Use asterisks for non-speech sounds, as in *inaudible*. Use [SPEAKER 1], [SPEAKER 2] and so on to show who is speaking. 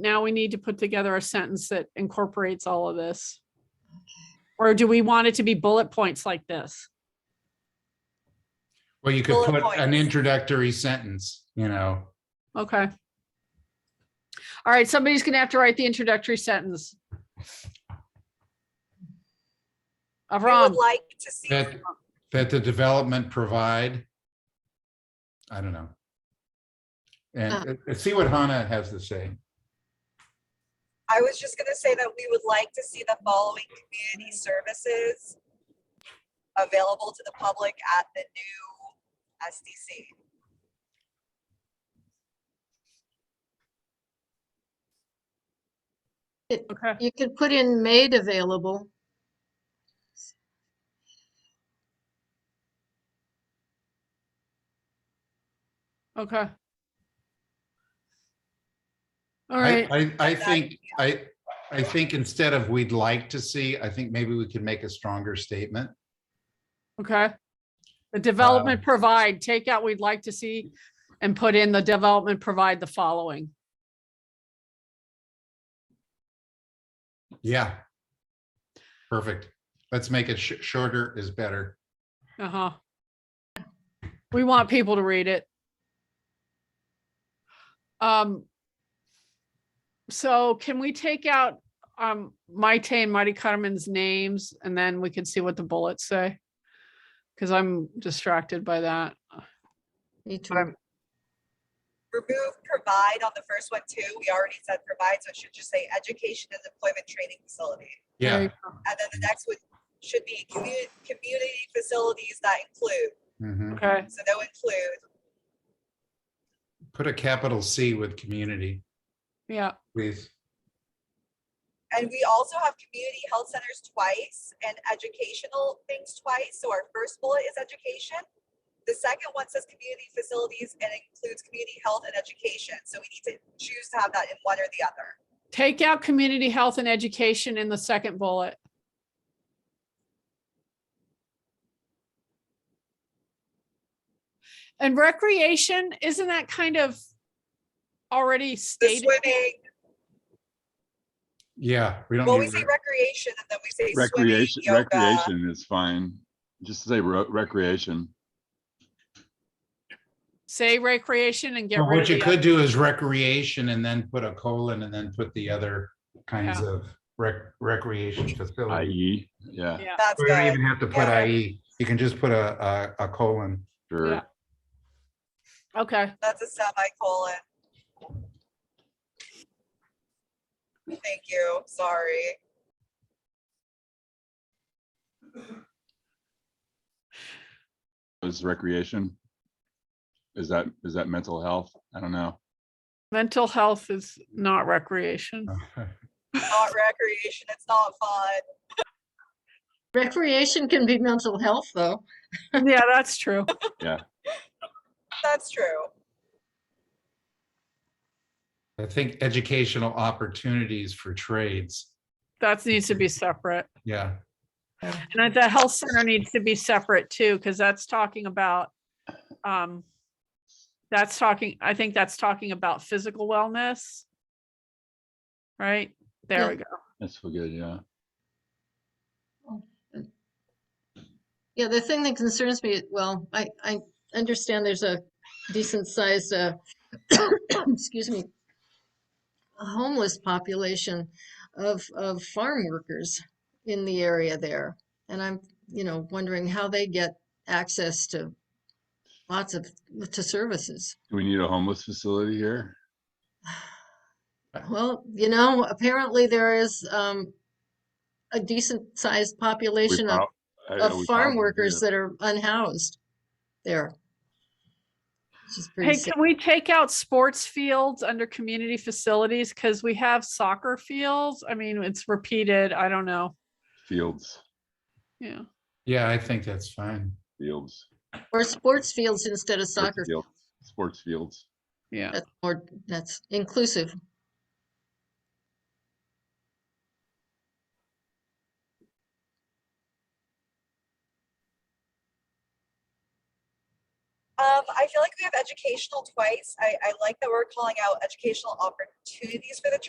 [SPEAKER 1] now we need to put together a sentence that incorporates all of this. Or do we want it to be bullet points like this?
[SPEAKER 2] Well, you could
[SPEAKER 3] Bullet
[SPEAKER 2] put an
[SPEAKER 3] points.
[SPEAKER 2] introductory sentence, you know,
[SPEAKER 1] Okay. All right, somebody's gonna have to write the introductory sentence.
[SPEAKER 3] I
[SPEAKER 1] Avram,
[SPEAKER 3] would like to see,
[SPEAKER 2] that,
[SPEAKER 3] I
[SPEAKER 2] that the development provide. I don't know. And
[SPEAKER 1] Ah.
[SPEAKER 2] uh, see what Hannah has to say.
[SPEAKER 3] was just gonna say that we would like to see the following community services available to the public at the new SDC.
[SPEAKER 1] okay,
[SPEAKER 4] You could put in made available.
[SPEAKER 1] okay. All
[SPEAKER 2] I,
[SPEAKER 1] right,
[SPEAKER 2] I, I think, I, I think instead of we'd like to see, I think maybe we could make a stronger statement.
[SPEAKER 1] okay. The development provide, take out, we'd like to see, and put in the development provide the following.
[SPEAKER 2] Yeah. Perfect. Let's make it sh- shorter is better.
[SPEAKER 1] Uh-huh. We want people to read it. Um. So can we take out, um, Maite and Marty Cutterman's names and then we can see what the bullets say? Cause I'm distracted by that.
[SPEAKER 4] Me too.
[SPEAKER 1] I'm-
[SPEAKER 3] Remove provide on the first one too. We already said provide, so it should just say education and employment training facility.
[SPEAKER 2] Yeah.
[SPEAKER 3] And then the next one should be community, community facilities that include,
[SPEAKER 2] mhm.
[SPEAKER 1] Okay,
[SPEAKER 3] so they'll include
[SPEAKER 2] Put a capital C with community,
[SPEAKER 1] yeah,
[SPEAKER 2] please.
[SPEAKER 3] And we also have community health centers twice and educational things twice. So our first bullet is education. The second one says community facilities and includes community health and education. So we need to choose to have that in one or the other.
[SPEAKER 1] take out community health and education in the second bullet. And recreation, isn't that kind of already
[SPEAKER 3] The
[SPEAKER 1] stated?
[SPEAKER 3] swimming,
[SPEAKER 2] Yeah, we don't.
[SPEAKER 3] well,
[SPEAKER 2] need
[SPEAKER 3] we say
[SPEAKER 2] re-
[SPEAKER 3] recreation and then we say swimming,
[SPEAKER 5] Recreation,
[SPEAKER 3] yoga.
[SPEAKER 5] recreation is fine. Just say ro- recreation.
[SPEAKER 1] Say recreation and get
[SPEAKER 2] Well,
[SPEAKER 1] rid of
[SPEAKER 2] What you
[SPEAKER 1] the,
[SPEAKER 2] could
[SPEAKER 1] other-
[SPEAKER 2] do is recreation and then put a colon and then put the other kinds of rec- recreation facility.
[SPEAKER 5] IE, E, yeah,
[SPEAKER 1] Yeah.
[SPEAKER 3] That's
[SPEAKER 2] You don't
[SPEAKER 3] good.
[SPEAKER 2] even have to put
[SPEAKER 3] Yeah.
[SPEAKER 2] IE. You can just put a, a, a colon.
[SPEAKER 5] sure.
[SPEAKER 1] Yeah. okay,
[SPEAKER 3] That's a semicolon. Thank you. Sorry.
[SPEAKER 5] Is recreation? Is that, is that mental health? I don't know.
[SPEAKER 1] mental health is not
[SPEAKER 2] *laughs*
[SPEAKER 1] recreation.
[SPEAKER 3] Not recreation. It's not fun.
[SPEAKER 4] Recreation can be mental health, though.
[SPEAKER 1] Yeah, that's true.
[SPEAKER 3] That's true.
[SPEAKER 2] I think educational opportunities for trades.
[SPEAKER 1] That needs to be separate.
[SPEAKER 2] Yeah.
[SPEAKER 1] And I- the health center needs to be separate too, because that's talking about, um, that's talking, I think that's talking about physical wellness. Right? There
[SPEAKER 4] Yeah.
[SPEAKER 1] we go.
[SPEAKER 5] That's what good, yeah.
[SPEAKER 4] Yeah, the thing that concerns me, well, I, I understand there's a decent sized, uh, *coughs* excuse me, a homeless population of, of farm workers in the area there. And I'm, you know, wondering how they get access to lots of, to services.
[SPEAKER 5] Do we need a homeless facility here?
[SPEAKER 4] Well, you know, apparently there is um, a decent sized
[SPEAKER 5] We
[SPEAKER 4] population of,
[SPEAKER 5] prob- I- I-
[SPEAKER 4] of
[SPEAKER 5] we
[SPEAKER 4] farm
[SPEAKER 5] probably
[SPEAKER 4] workers uh,
[SPEAKER 5] do.
[SPEAKER 4] that are unhoused there. Which is pretty
[SPEAKER 1] Hey,
[SPEAKER 4] sad.
[SPEAKER 1] can we take out sports fields under community facilities? Because we have soccer fields. I mean, it's repeated. I don't know.
[SPEAKER 5] Fields,
[SPEAKER 1] Yeah.
[SPEAKER 2] Yeah, I think that's fine.
[SPEAKER 5] fields.
[SPEAKER 4] Or sports fields instead of
[SPEAKER 5] sports
[SPEAKER 4] soccer.
[SPEAKER 5] fields, Sports fields.
[SPEAKER 1] Yeah.
[SPEAKER 4] That's more, that's inclusive.
[SPEAKER 3] Um, I feel like we have educational twice. I, I like that we're calling out educational opportunities for the church.